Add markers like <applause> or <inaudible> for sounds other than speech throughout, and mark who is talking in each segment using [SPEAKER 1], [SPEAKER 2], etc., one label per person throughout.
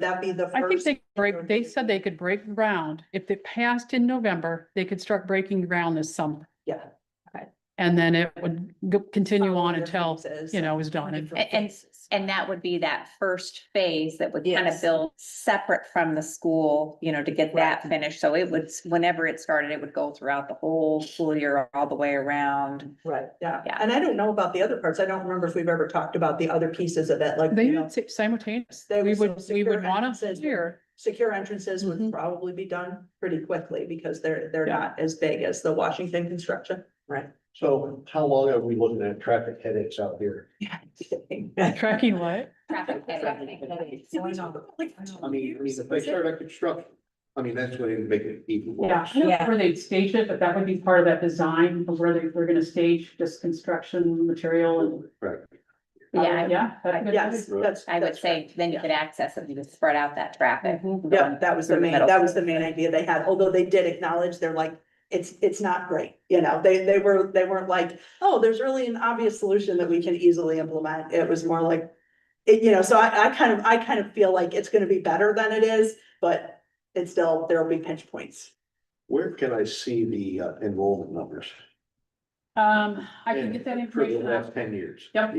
[SPEAKER 1] That'd be the
[SPEAKER 2] I think
[SPEAKER 1] first.
[SPEAKER 2] they break, they said they could break ground. If it passed in November, they could start breaking ground this summer.
[SPEAKER 1] Yeah.
[SPEAKER 2] And then it would go- continue on
[SPEAKER 1] Different
[SPEAKER 2] until,
[SPEAKER 1] phases.
[SPEAKER 2] you know, it was done. And-
[SPEAKER 1] Different
[SPEAKER 3] And- and-
[SPEAKER 1] phases.
[SPEAKER 3] And that would be that first phase that would kind
[SPEAKER 1] Yes.
[SPEAKER 3] of build separate from the school, you know, to get that
[SPEAKER 1] Right.
[SPEAKER 3] finished. So it would, whenever it started, it would go throughout the whole school year, all the way around.
[SPEAKER 1] Right, yeah.
[SPEAKER 3] Yeah.
[SPEAKER 1] And I don't know about the other parts. I don't remember if we've ever talked about the other pieces of that, like,
[SPEAKER 2] They
[SPEAKER 1] you know,
[SPEAKER 2] would say simultaneous.
[SPEAKER 1] There
[SPEAKER 2] We
[SPEAKER 1] was
[SPEAKER 2] would,
[SPEAKER 1] some
[SPEAKER 2] we
[SPEAKER 1] secure
[SPEAKER 2] would want to
[SPEAKER 1] entrances.
[SPEAKER 2] hear.
[SPEAKER 1] secure entrances would
[SPEAKER 2] Mhm.
[SPEAKER 1] probably be done pretty quickly because they're, they're
[SPEAKER 2] Yeah.
[SPEAKER 1] not as big as the Washington construction. Right.
[SPEAKER 4] So how long are we looking at traffic headaches out here?
[SPEAKER 1] <laughs>
[SPEAKER 2] Tracking what?
[SPEAKER 3] Traffic headache.
[SPEAKER 4] I mean, I mean, if they start a construction, I mean, that's when it make it even
[SPEAKER 2] Yeah,
[SPEAKER 4] worse.
[SPEAKER 2] I don't know
[SPEAKER 3] Yeah.
[SPEAKER 2] where they'd stage it, but that would be part of that design of where they, we're gonna stage this construction material and. uh,
[SPEAKER 4] Right.
[SPEAKER 3] Yeah, I-
[SPEAKER 2] Yeah. that could-
[SPEAKER 1] Yes, that's.
[SPEAKER 3] I would
[SPEAKER 1] that's right. Mm-hmm.
[SPEAKER 3] say then you could access it, you could spread out that traffic.
[SPEAKER 2] um,
[SPEAKER 1] Yeah, that was the
[SPEAKER 3] through the
[SPEAKER 1] main,
[SPEAKER 3] middle.
[SPEAKER 1] that was the main idea they had, although they did acknowledge, they're like, it's, it's not great, you know, they, they were, they weren't like, oh, there's really an obvious solution that we can easily implement, it was more like, it, you know, so I, I kind of, I kind of feel like it's gonna be better than it is, but it's still, there'll be pinch points.
[SPEAKER 4] Where can I see the uh, enrollment numbers?
[SPEAKER 2] Um, I can
[SPEAKER 4] In-
[SPEAKER 2] get that
[SPEAKER 4] For the
[SPEAKER 2] information. out.
[SPEAKER 4] last ten years.
[SPEAKER 2] Yep.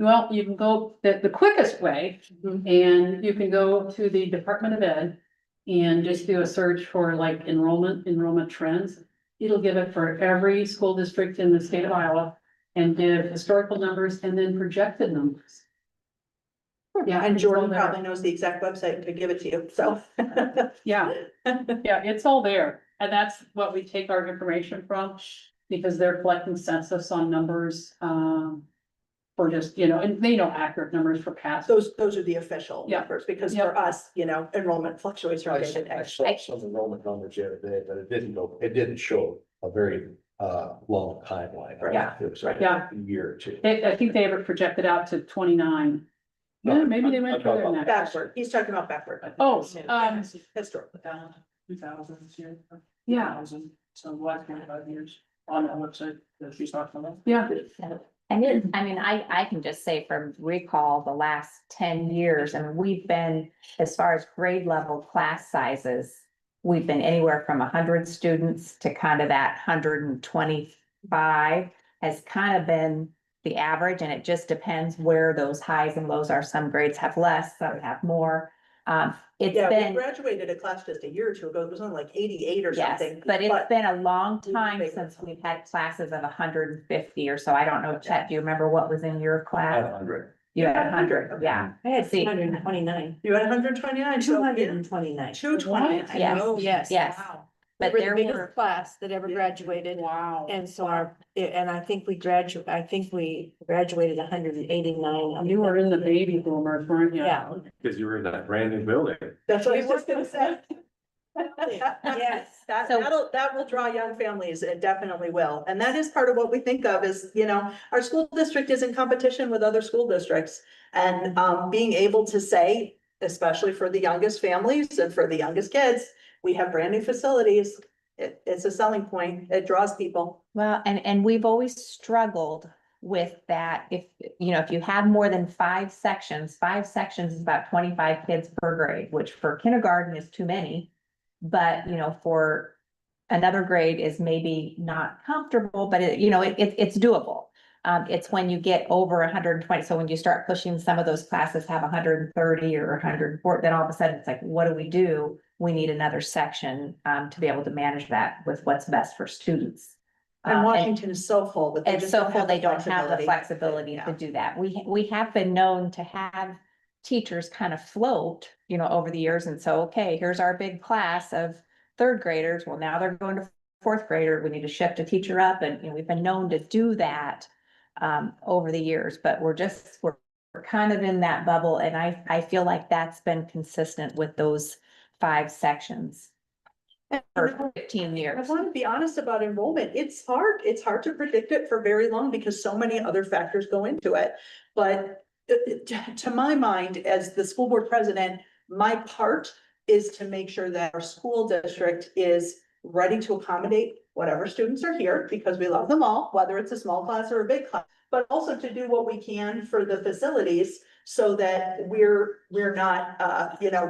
[SPEAKER 2] Well, you can go, the, the quickest way And you can go to the Department of Ed and just do a search for like enrollment, enrollment trends. It'll give it for every school district in the state of Iowa and give historical numbers and then projected numbers. Yeah,
[SPEAKER 1] And
[SPEAKER 2] it's all
[SPEAKER 1] Jordan
[SPEAKER 2] there. Oh.
[SPEAKER 1] probably knows the exact website to give it to you, so.
[SPEAKER 2] Yeah, yeah, it's all there. And that's what we take our information from because they're collecting census on numbers, um, for just, you know, and they know accurate numbers for
[SPEAKER 1] <laughs>
[SPEAKER 2] past.
[SPEAKER 1] Those, those are the official
[SPEAKER 2] Yeah.
[SPEAKER 1] numbers, because
[SPEAKER 2] Yeah.
[SPEAKER 1] for us, you know, enrollment fluctuates from
[SPEAKER 4] I
[SPEAKER 1] day to
[SPEAKER 4] saw, I
[SPEAKER 1] day.
[SPEAKER 4] saw some enrollment numbers the other day, but it didn't go, it didn't show a very uh long timeline.
[SPEAKER 1] Yeah.
[SPEAKER 4] It was like
[SPEAKER 2] Yeah.
[SPEAKER 4] a year or two.
[SPEAKER 2] They, I think they have it projected out to twenty-nine. Yeah, maybe they went further than that.
[SPEAKER 1] Backward, he's Oh, talking about backward.
[SPEAKER 2] Oh, um,
[SPEAKER 1] Historical.
[SPEAKER 5] Two thousand this year.
[SPEAKER 2] yeah,
[SPEAKER 5] So last twenty-five years on that website that she's talking about.
[SPEAKER 2] yeah,
[SPEAKER 3] And
[SPEAKER 1] Mm-hmm.
[SPEAKER 3] then, I mean, I, I can just say from recall, the last ten years, and we've been, as far as grade level class sizes. We've been anywhere from hundred students to kind of that hundred and twenty-five has kind of been. The average, and it just depends where those highs and lows are. Some grades have less, some have more. Um, it's
[SPEAKER 1] Yeah, we
[SPEAKER 3] been.
[SPEAKER 1] graduated a class just a year or two ago, it was on like eighty-eight or
[SPEAKER 3] Yes,
[SPEAKER 1] something.
[SPEAKER 3] but it's been a long
[SPEAKER 1] We've
[SPEAKER 3] time
[SPEAKER 1] figured
[SPEAKER 3] since
[SPEAKER 1] something
[SPEAKER 3] we've had classes of hundred and fifty or so. I don't know, Chet, do you remember what was in your
[SPEAKER 4] Out of
[SPEAKER 3] class?
[SPEAKER 4] hundred.
[SPEAKER 3] You had
[SPEAKER 1] Yeah,
[SPEAKER 3] hundred, yeah.
[SPEAKER 6] I had
[SPEAKER 3] See.
[SPEAKER 6] two hundred and twenty-nine,
[SPEAKER 1] You had hundred and twenty-nine.
[SPEAKER 6] two hundred and twenty-nine.
[SPEAKER 1] Two twenty.
[SPEAKER 2] What?
[SPEAKER 3] Yes,
[SPEAKER 6] Yes.
[SPEAKER 3] yes. But
[SPEAKER 6] We
[SPEAKER 3] there
[SPEAKER 6] were the biggest
[SPEAKER 3] were,
[SPEAKER 6] class that ever graduated.
[SPEAKER 5] Wow.
[SPEAKER 6] And so our, and I think we gradu, I think we graduated hundred and eighty-nine.
[SPEAKER 2] you were in the baby boomers, weren't you?
[SPEAKER 6] Yeah,
[SPEAKER 4] Because you were in that brand new building.
[SPEAKER 1] That's what I was just gonna say.
[SPEAKER 6] yes.
[SPEAKER 1] That,
[SPEAKER 3] So-
[SPEAKER 1] that'll, that will draw young families, it definitely will, and that is part of what we think of is, you know, our school district is in competition with other school districts. And, um, being able to say, especially for the youngest families and for the youngest kids, we have brand new facilities. It, it's a selling point, it draws people.
[SPEAKER 3] well, and, and we've always struggled with that. If, you know, if you have more than five sections, five sections is about twenty-five kids per grade, which for kindergarten is too many. But, you know, for another grade is maybe not comfortable, but it, you know, it, it- it's doable. Um, it's when you get over hundred and twenty, so when you start pushing, some of those classes have hundred and thirty or hundred and forty, then all of a sudden it's like, what do we do? We need another section, um, to be able to manage that with what's best for students.
[SPEAKER 1] And
[SPEAKER 3] Um,
[SPEAKER 1] Washington is so full, but they
[SPEAKER 3] and
[SPEAKER 1] just
[SPEAKER 3] so
[SPEAKER 1] don't
[SPEAKER 3] far,
[SPEAKER 1] have
[SPEAKER 3] they
[SPEAKER 1] the
[SPEAKER 3] don't have
[SPEAKER 1] flexibility.
[SPEAKER 3] the flexibility
[SPEAKER 1] Yeah.
[SPEAKER 3] to do that. We, we have been known to have teachers kind of float, you know, over the years. And so, okay, here's our big class of third graders. Well, now they're going to fourth grader. We need to shift a teacher up and, you know, we've been known to do that um, over the years, but we're just, we're, we're kind of in that bubble. And I, I feel like that's been consistent with those five sections for fifteen
[SPEAKER 1] I
[SPEAKER 3] years.
[SPEAKER 1] want to be honest about enrollment. It's hard. It's hard to predict it for very long because so many other factors go into it. But uh, uh, to to my mind, as the school board president, my part is to make sure that our school district is ready to accommodate whatever students are here because we love them all, whether it's a small class or a big class. But also to do what we can for the facilities so that we're, we're not, uh, you know,